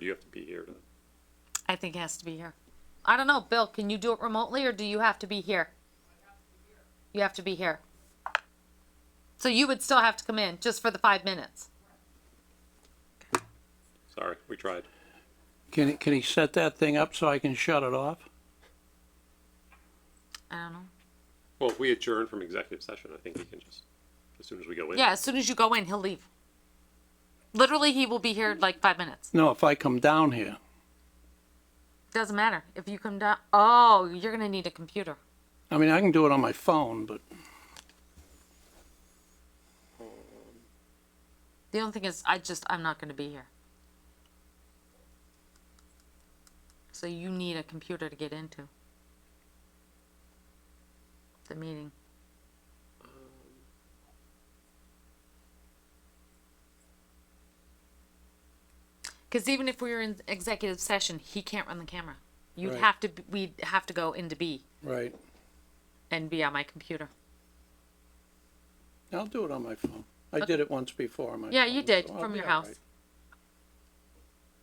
you have to be here to? I think it has to be here. I don't know, Bill, can you do it remotely or do you have to be here? You have to be here. So you would still have to come in just for the five minutes. Sorry, we tried. Can, he- can he set that thing up so I can shut it off? I don't know. Well, if we adjourn from executive session, I think we can just, as soon as we go in. Yeah, as soon as you go in, he'll leave. Literally, he will be here like five minutes. No, if I come down here. Doesn't matter. If you come down, oh, you're going to need a computer. I mean, I can do it on my phone, but The only thing is, I just, I'm not going to be here. So you need a computer to get into the meeting. Because even if we were in executive session, he can't run the camera. You'd Right. have to, b- we'd have to go into B right, and be on my computer. I'll do it on my phone. I did it once before on my. Yeah, you phone, did so I'll from be your all house. right.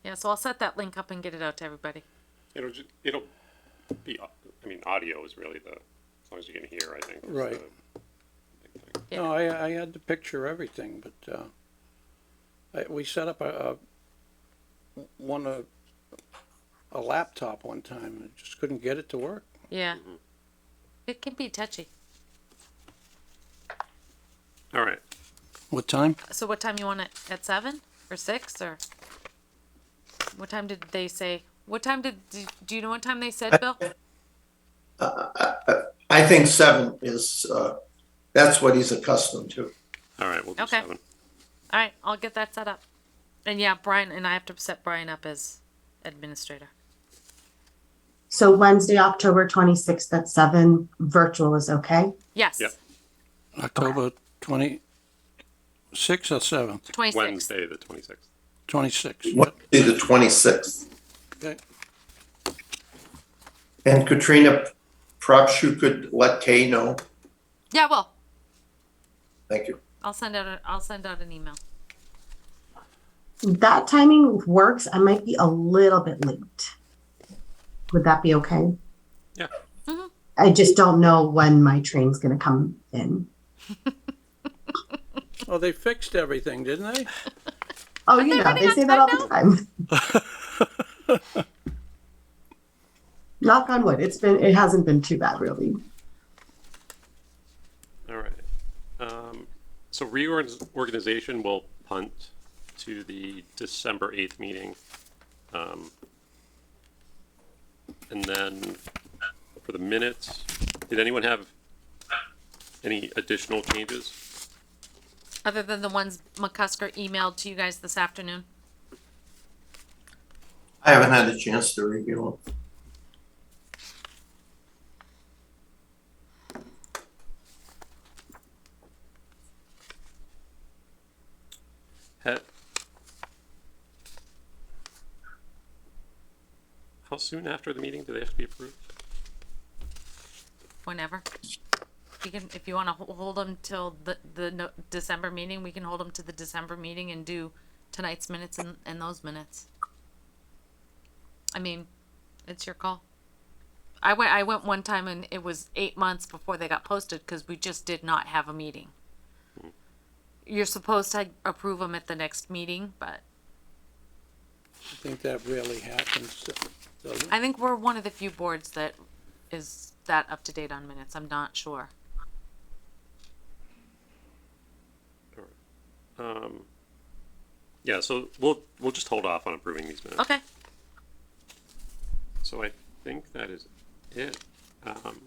Yeah, so I'll set that link up and get it out to everybody. It'll just, it'll be, au- I mean, audio is really the, as long as you can hear, I think. is Right. the big thing. Yeah. No, I, I had to picture everything, but, uh, I, we set up a, a, one, a, a laptop one time, and just couldn't get it to work. Yeah. It can be touchy. All right, What time? So what time you want it? At seven or six or? What time did they say? What time did, do- do you know what time they said, Bill? I think seven is, uh, that's what he's accustomed to. all right, we'll do Okay. seven. All right, I'll get that set up. And yeah, Brian, and I have to set Brian up as administrator. So Wednesday, October 26th at 7, virtual is okay? Yes, Yep. October twenty-six or seventh? twenty-six. Wednesday, the twenty-sixth. Twenty-six. Wednesday, the twenty-sixth. Okay. And Katrina, perhaps you could let Kay know. Yeah, well, Thank you. I'll send out, a will send out an email. That timing works. I might be a little bit late. Would that be okay? Yeah. Mm-hmm. I just don't know when my train's going to come in. Oh, they fixed everything, didn't they? Oh, you they know, running they on say that all the time. Knock on wood. It's been, it hasn't been too bad, really. All right. Um, so reorganization will punt to the December eighth meeting. Um, and then for the minutes, did anyone have any additional changes? Other than the ones McCusker emailed to you guys this afternoon. I haven't had a chance to review them. Had- How soon after the meeting do they have to be approved? whenever. You can, if you wanna ho- hold them till the, the no- December meeting, we can hold them to the December meeting and do tonight's minutes and, and those minutes. I mean, it's your call. I went, I went one time and it was eight months before they got posted, cause we just did not have a meeting. You're supposed to approve them at the next meeting, but I think that rarely happens, doesn't it? I think we're one of the few boards that is that up to date on minutes, I'm not sure. Um, yeah, so we'll, we'll just hold off on approving these minutes. Okay, So I think that is it. Um,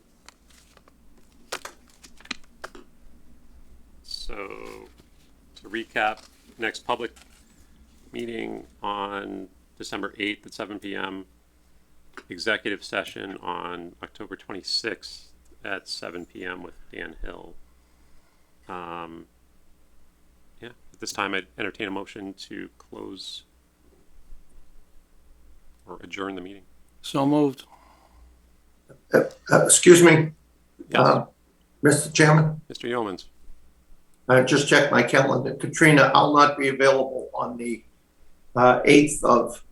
so to recap, next public meeting on December 8th at 7 p.m., executive session on October 26th at 7 p.m. with Dan Hill. Um, yeah, at this time, I'd entertain a motion to close or adjourn the meeting. So moved. Uh, excuse me, Yes. Uh, Mr. Chairman, Mr. Yeomans, I just checked my calendar. Katrina, I'll not be available on the, uh, eighth of